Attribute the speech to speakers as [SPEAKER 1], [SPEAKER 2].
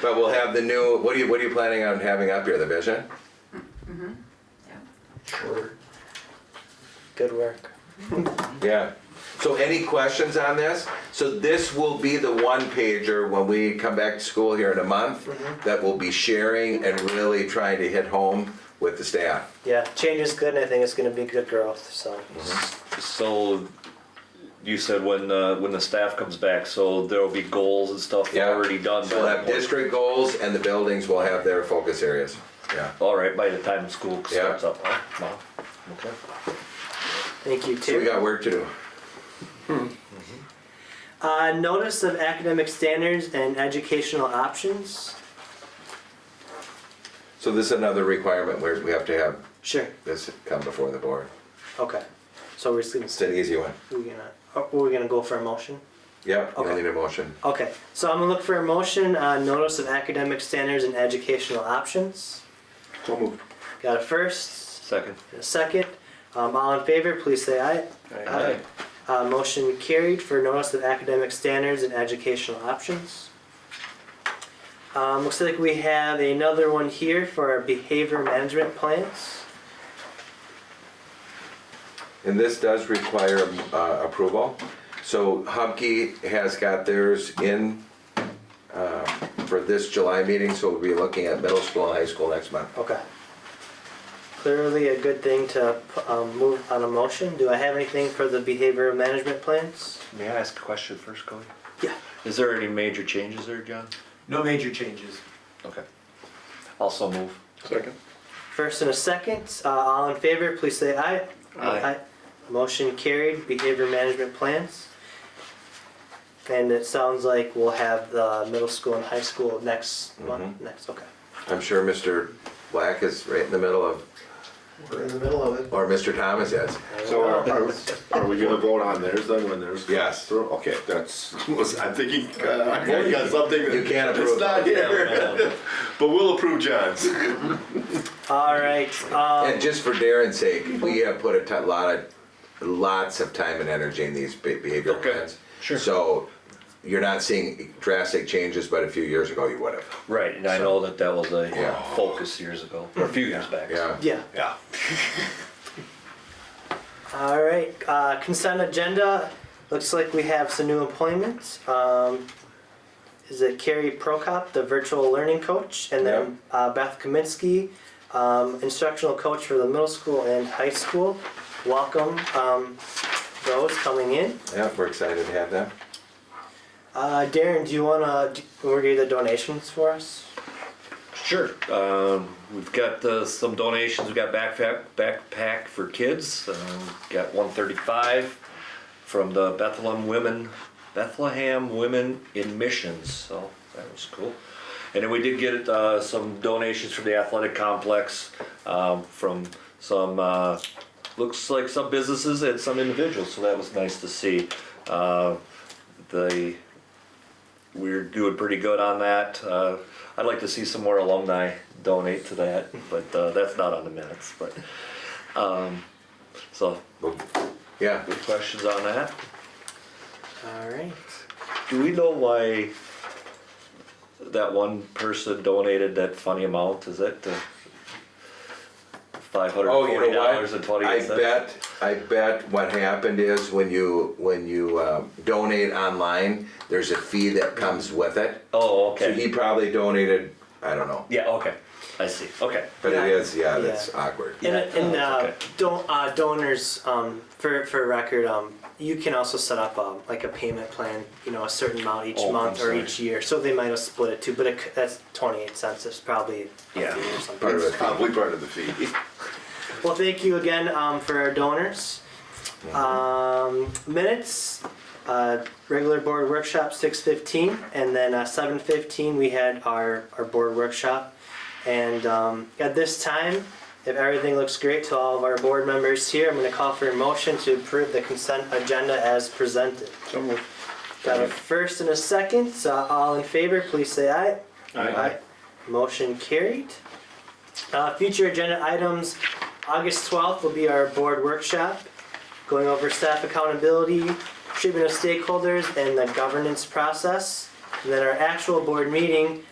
[SPEAKER 1] But we'll have the new, what are you, what are you planning on having up here, the vision?
[SPEAKER 2] Good work.
[SPEAKER 1] Yeah. So any questions on this? So this will be the one pager when we come back to school here in a month that we'll be sharing and really trying to hit home with the staff.
[SPEAKER 2] Yeah, change is good, and I think it's going to be good growth. So
[SPEAKER 1] Mm-hmm.
[SPEAKER 3] So you said when uh, when the staff comes back, so there will be goals and stuff
[SPEAKER 1] Yeah.
[SPEAKER 3] already done. by
[SPEAKER 1] We'll
[SPEAKER 3] that
[SPEAKER 1] have
[SPEAKER 3] point.
[SPEAKER 1] district goals and the buildings will have their focus areas. Yeah.
[SPEAKER 3] All right, by the time school
[SPEAKER 1] Yeah.
[SPEAKER 3] starts up, huh? Wow. Okay.
[SPEAKER 2] thank you
[SPEAKER 1] So we
[SPEAKER 2] too.
[SPEAKER 1] got work to do.
[SPEAKER 2] Uh, notice of academic standards and educational options.
[SPEAKER 1] So this is another requirement where we have to have
[SPEAKER 2] Sure.
[SPEAKER 1] this come before the board.
[SPEAKER 2] Okay. So we're just going
[SPEAKER 1] It's
[SPEAKER 2] to
[SPEAKER 1] an easy one.
[SPEAKER 2] we're gonna are we gonna go for a motion?
[SPEAKER 1] Yeah, you don't
[SPEAKER 2] Okay.
[SPEAKER 1] need a motion.
[SPEAKER 2] Okay. So I'm gonna look for a motion on notice of academic standards and educational options.
[SPEAKER 1] So moved.
[SPEAKER 2] Got a first,
[SPEAKER 3] Second.
[SPEAKER 2] and a second. Um, all in favor, please say aye.
[SPEAKER 3] Aye.
[SPEAKER 2] Uh, motion carried for notice of academic standards and educational options. Um, looks like we have another one here for our behavior management plans.
[SPEAKER 1] And this does require uh, approval. So Humke has got theirs in uh, for this July meeting, so we'll be looking at middle school and high school next month.
[SPEAKER 2] Okay. Clearly a good thing to um, move on a motion. Do I have anything for the behavior management plans?
[SPEAKER 3] May I ask a question first, Cody?
[SPEAKER 2] Yeah.
[SPEAKER 3] Is there any major changes there, John?
[SPEAKER 4] No major changes.
[SPEAKER 3] Okay. Also move.
[SPEAKER 5] Second.
[SPEAKER 2] First and a second. Uh, all in favor, please say aye.
[SPEAKER 3] Aye.
[SPEAKER 2] Motion carried. Behavior management plans. And it sounds like we'll have the middle school and high school next month. Next, okay.
[SPEAKER 1] I'm sure Mr. Black is right in the middle of,
[SPEAKER 4] We're in the middle of it.
[SPEAKER 1] or Mr. Thomas is.
[SPEAKER 5] So are, are- are we gonna vote on theirs then when there's?
[SPEAKER 1] Yes.
[SPEAKER 5] Okay, that's, I'm thinking, uh, I got something that.
[SPEAKER 1] You can't approve.
[SPEAKER 5] It's not here,
[SPEAKER 3] Yeah.
[SPEAKER 5] but we'll approve John's.
[SPEAKER 2] All right. Um,
[SPEAKER 3] Oh.
[SPEAKER 1] And just for Darren's sake, we have put a ton- lot of, lots of time and energy in these be- behavioral
[SPEAKER 3] Okay,
[SPEAKER 1] plans.
[SPEAKER 3] sure.
[SPEAKER 1] So you're not seeing drastic changes, but a few years ago you would have.
[SPEAKER 3] Right, and I know that that was a
[SPEAKER 1] Yeah.
[SPEAKER 3] focus years ago, or a few years back.
[SPEAKER 1] Yeah.
[SPEAKER 2] yeah.
[SPEAKER 5] Yeah.
[SPEAKER 2] All right. Uh, consent agenda. Looks like we have some new appointments. Um, is it Carrie Prokop, the virtual learning coach, and then uh, Beth Kaminsky, um, instructional coach for the middle school and high school. Welcome um, those coming in.
[SPEAKER 1] Yeah, we're excited to have them.
[SPEAKER 2] Uh, Darren, do you want to order the donations for us?
[SPEAKER 3] Sure. Um, we've got uh, some donations. We've got backpack backpack for kids. Um, got 135 from the Bethlehem Women, Bethlehem Women in Missions. So that was cool. And then we did get uh, some donations from the athletic complex um, from some uh, looks like some businesses and some individuals. So that was nice to see. Uh, the we're doing pretty good on that. Uh, I'd like to see some more alumni donate to that, but uh, that's not on the minutes. But um, so,
[SPEAKER 1] Yeah.
[SPEAKER 3] good questions on that.
[SPEAKER 2] All right.
[SPEAKER 3] Do we know why that one person donated that funny amount? Is that the five hundred
[SPEAKER 1] Oh, you
[SPEAKER 3] forty
[SPEAKER 1] know
[SPEAKER 3] dollars and
[SPEAKER 1] what?
[SPEAKER 3] twenty
[SPEAKER 1] I
[SPEAKER 3] eight cents?
[SPEAKER 1] bet, I bet what happened is when you, when you uh, donate online, there's a fee that comes with it.
[SPEAKER 3] Oh,
[SPEAKER 1] So he
[SPEAKER 3] okay.
[SPEAKER 1] probably donated, I don't know,
[SPEAKER 3] Yeah, okay. I see. Okay.
[SPEAKER 1] but it is, yeah, that's
[SPEAKER 2] Yeah.
[SPEAKER 1] awkward.
[SPEAKER 2] And, and uh,
[SPEAKER 3] Okay.
[SPEAKER 2] don- uh, donors, um, for, for record, um, you can also set up um, like a payment plan, you know, a certain amount each
[SPEAKER 3] Oh, I'm
[SPEAKER 2] month or
[SPEAKER 3] sorry.
[SPEAKER 2] each year. So they might have split it too, but it, c- that's 28 cents. It's probably a
[SPEAKER 3] Yeah.
[SPEAKER 2] fee or something.
[SPEAKER 1] Part of it.
[SPEAKER 5] It's probably part of the fee.
[SPEAKER 2] Well, thank you again um, for our donors. Um, minutes, uh, regular board workshop six fifteen, and then uh, seven fifteen we had our our board workshop. And um, at this time, if everything looks great to all of our board members here, I'm going to call for a motion to approve the consent agenda as presented.
[SPEAKER 5] So moved.
[SPEAKER 2] Got a first and a second. So all in favor, please say aye. Aye. Motion carried. Uh, Future agenda items, August 12th will be our board workshop, going over staff accountability, treatment of stakeholders, and the governance process. And then our actual board meeting